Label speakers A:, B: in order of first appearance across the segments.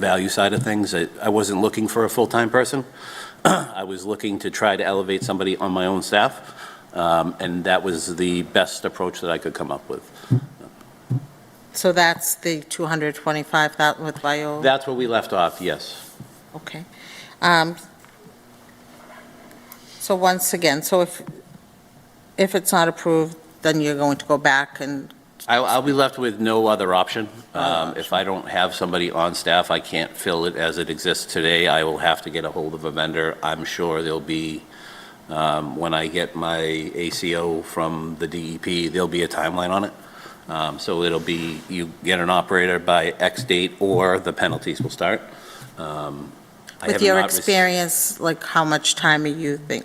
A: value side of things. I I wasn't looking for a full-time person. I was looking to try to elevate somebody on my own staff, um, and that was the best approach that I could come up with.
B: So that's the 225, that with Viola?
A: That's where we left off, yes.
B: Okay. Um, So once again, so if, if it's not approved, then you're going to go back and,
A: I- I'll be left with no other option. Um, If I don't have somebody on staff, I can't fill it as it exists today. I will have to get a hold of a vendor. I'm sure there'll be, um, when I get my ACO from the DEP, there'll be a timeline on it. Um, So it'll be, you get an operator by X date, or the penalties will start. Um, I have
B: with your
A: not rec-
B: experience, like, how much time are you think,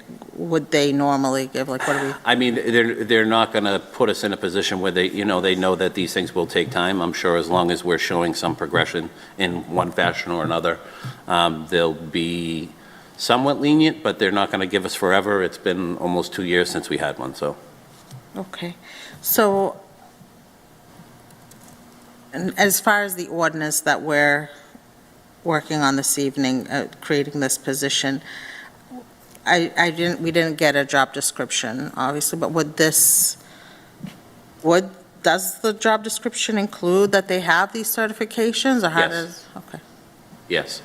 B: would they normally give? Like, what are we,
A: I mean, they're, they're not going to put us in a position where they, you know, they know that these things will take time. I'm sure as long as we're showing some progression in one fashion or another, um, they'll be somewhat lenient, but they're not going to give us forever. It's been almost two years since we had one, so.
B: okay. So, and as far as the ordinance that we're working on this evening, uh, creating this position, I, I didn't, we didn't get a job description, obviously, but would this, would, does the job description include that they have these certifications, or how
A: Yes.
B: does? Okay,
A: Yes.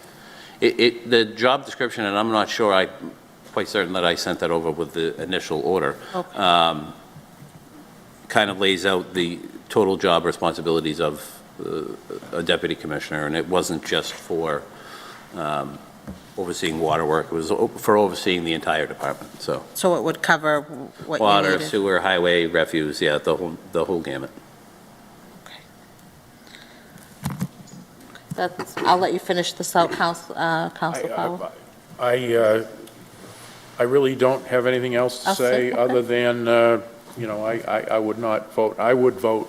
A: It, it, the job description, and I'm not sure, I'm quite certain that I sent that over with the initial order,
B: Okay.
A: um, kind of lays out the total job responsibilities of uh, a deputy commissioner, and it wasn't just for um, overseeing water work, it was o- for overseeing the entire department, so.
B: So it would cover what you
A: Water,
B: needed?
A: sewer, highway, refuse, yeah, the whole, the whole gamut.
B: That's- I'll let you finish this out, Counsel, uh, Counsel
C: I- I-
B: Powell.
C: I, uh, I really don't have anything else to
B: I'll
C: say,
B: second that.
C: other than, uh, you know, I, I I would not vote, I would vote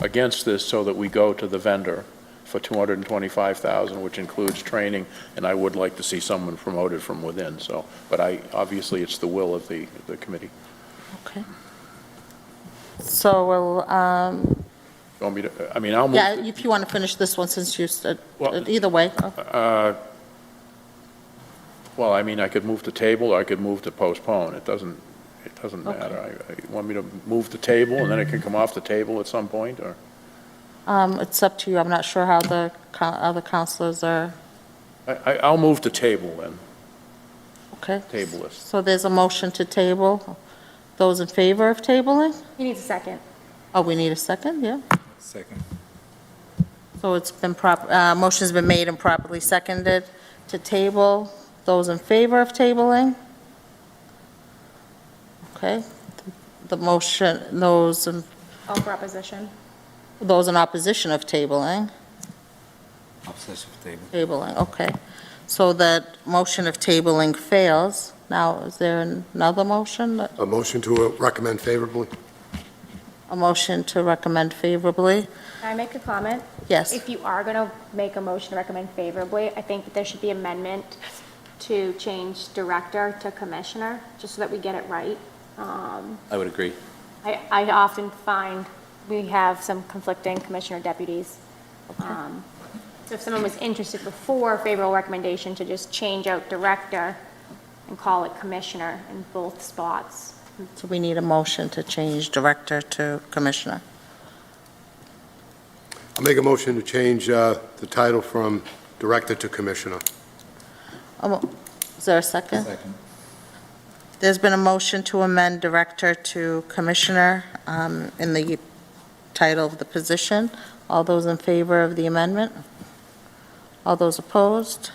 C: against this so that we go to the vendor for 225,000, which includes training, and I would like to see someone promoted from within, so, but I, obviously, it's the will of the, the committee.
B: Okay. So we'll, um,
C: Want me to, I mean, I'll move.
B: yeah, if you want to finish this one, since you said,
C: Well-
B: either way.
C: Uh, Well, I mean, I could move to table, or I could move to postpone. It doesn't, it doesn't
B: Okay.
C: matter. I- I- You want me to move to table, and then it can come off the table at some point, or?
B: Um, It's up to you. I'm not sure how the co- other counselors are,
C: I, I- I'll move to table then,
B: okay?
C: table this.
B: So there's a motion to table. Those in favor of tabling?
D: You need a second.
B: Oh, we need a second, yeah.
E: Second.
B: So it's been prop, uh, motion's been made and properly seconded to table. Those in favor of tabling? Okay. The motion, those, in-
D: All proposition.
B: those in opposition of tabling?
E: Obsessive table.
B: Tabling, okay. So that motion of tabling fails. Now, is there another motion?
F: A motion to recommend favorably?
B: A motion to recommend favorably?
D: Can I make a comment?
B: Yes.
D: If you are going to make a motion to recommend favorably, I think that there should be amendment to change director to commissioner, just so that we get it right. Um,
A: I would agree.
D: I, I often find we have some conflicting commissioner deputies. Um, So if someone was interested before favorable recommendation to just change out director and call it commissioner in both spots.
B: So we need a motion to change director to commissioner.
F: I'll make a motion to change uh, the title from Director to Commissioner.
B: A mo- Is there a second?
E: Second.
B: There's been a motion to amend director to commissioner um, in the title of the position. All those in favor of the amendment? All those opposed?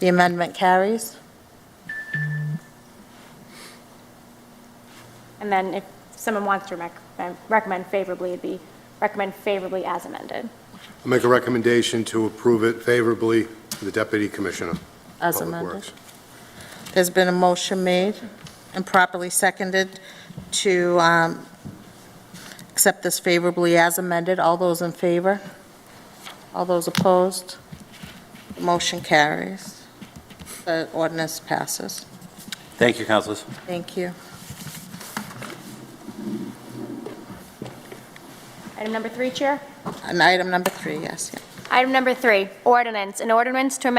B: The amendment carries.
D: And then if someone wants to rec- recommend favorably, it'd be recommend favorably as amended.
F: I'll make a recommendation to approve it favorably to the Deputy Commissioner. of
B: As
F: Public
B: amended.
F: Works.
B: There's been a motion made and properly seconded to um, accept this favorably as amended. All those in favor? All those opposed? Motion carries. The ordinance passes.
A: Thank you, councilors.
B: Thank you.
D: Item number three, Chair.
B: And item number three, yes, yeah.
D: Item number three, ordinance. An ordinance to amend